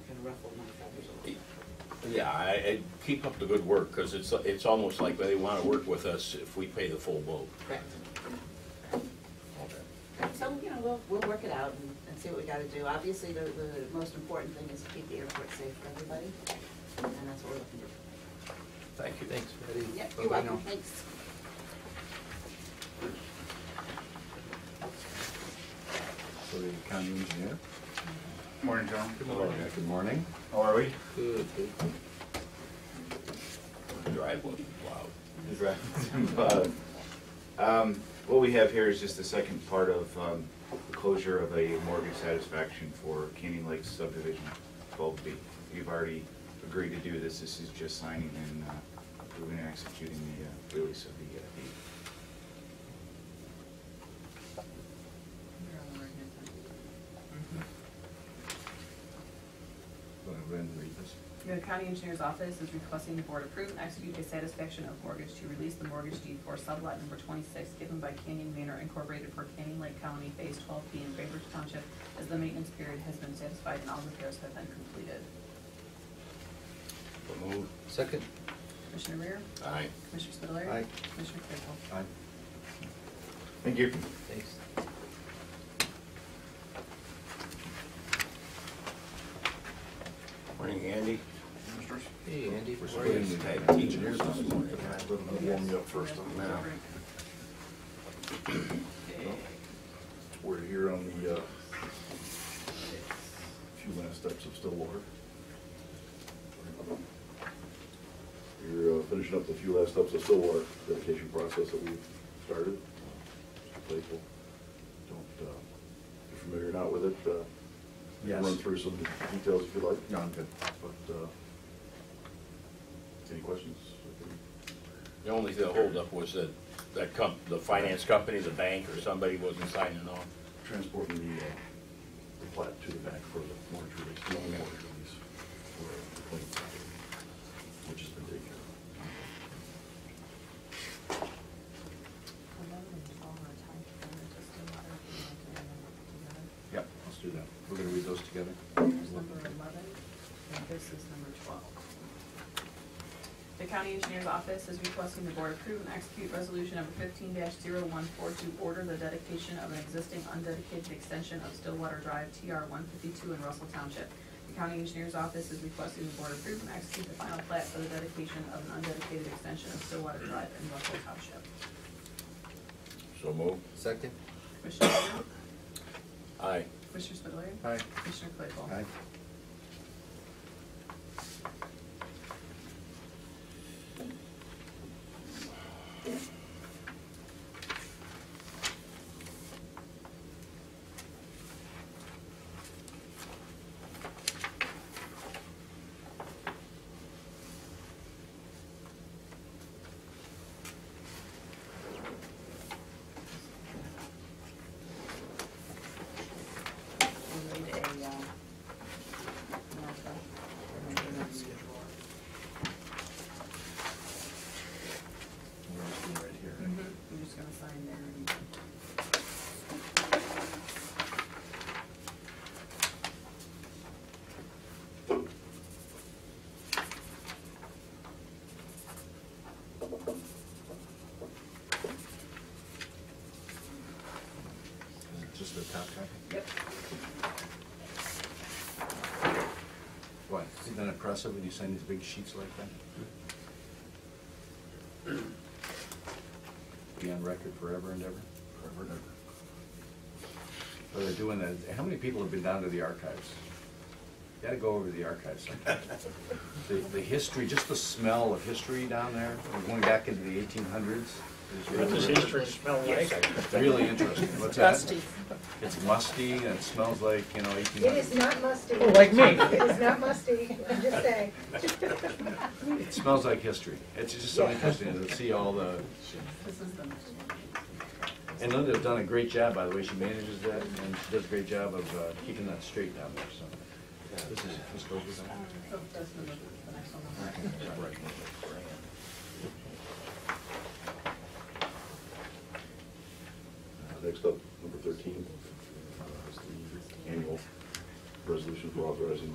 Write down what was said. Yeah, I, I keep up the good work, because it's, it's almost like they want to work with us if we pay the full boat. Correct. So, you know, we'll, we'll work it out and, and see what we gotta do. Obviously, the, the most important thing is to keep the airport safe for everybody, and that's what we're looking for. Thank you. Thanks, Betty. Yep, Bye-bye you're now. welcome, thanks. So the county engineer, Morning, John. Good morning. good morning. How are we? Good, good. Driveway, wow. Uh, um, What we have here is just the second part of um, the closure of a mortgage satisfaction for Canyon Lake subdivision 12B. We've already agreed to do this, this is just signing and uh, approving and executing the uh, release of the uh, deed. Go ahead and read this. The county engineer's office is requesting the board approve and execute a satisfaction of mortgage to release the mortgage deed for sublot number twenty-six given by Canyon Manor Incorporated for Canyon Lake County Phase twelve B in Bainbridge Township as the maintenance period has been satisfied and all repairs have been completed. So moved. Second? Commissioner Reer? Aye. Commissioner Spudler? Aye. Commissioner Claypool? Aye. Thank you. Thanks. Morning, Andy. Hey, Andy. We're how are you? splitting the Tag county teachers this morning. Let me warm you up first on that. Now, We're here on the, uh, few last steps of Stillwater. You're uh, finishing up the few last steps of Stillwater dedication process that we've started. Uh, Mr. Claypool, don't, uh, if you're familiar or not with it, uh, we can run Yes. through some details if you like. No, I'm good. But, uh, any questions? The only thing- the holdup was that, that comp, the finance company, the bank or somebody wasn't signing off. Transporting the, uh, the plat to the back for the mortgage release, the only mortgage release for the claim, which has been taken care of. Yep, let's do that. We're gonna read those together. Here's number eleven, and this is number twelve. The county engineer's office is requesting the board approve and execute resolution number fifteen 142 order the dedication of an existing undedicated extension of Stillwater Drive TR one fifty-two in Russell Township. The county engineer's office is requesting the board approve and execute the final plat for the dedication of an undedicated extension of Stillwater Drive in Russell Township. So moved. Second? Commissioner Rea? Aye. Commissioner Spudler? Aye. Commissioner Claypool? Aye. We'll need a, uh, markup. We're just doing right here. Mhm. I'm just gonna sign there and. Is it Just the top copy? Yep. What, isn't that impressive when you sign these big sheets like that? Be on record forever and ever? Forever and ever. Well, they're doing that, how many people have been down to the archives? Gotta go over to the archives sometime. The, the history, just the smell of history down there, going back into the eighteen hundreds. Really interesting, what's that? Musty. It's musty and it smells like, you know, eighteen It is hundreds. not musty. Like me. It is not musty, I'm just saying. It smells like history. It's just so interesting to see all the This is the next one. And Linda's done a great job, by the way, she manages that, and she does a great job of uh, keeping that straight down there, so. This is just over there. So that's the, the next one. Uh, Next up, number 13, uh, is the annual resolution for authorizing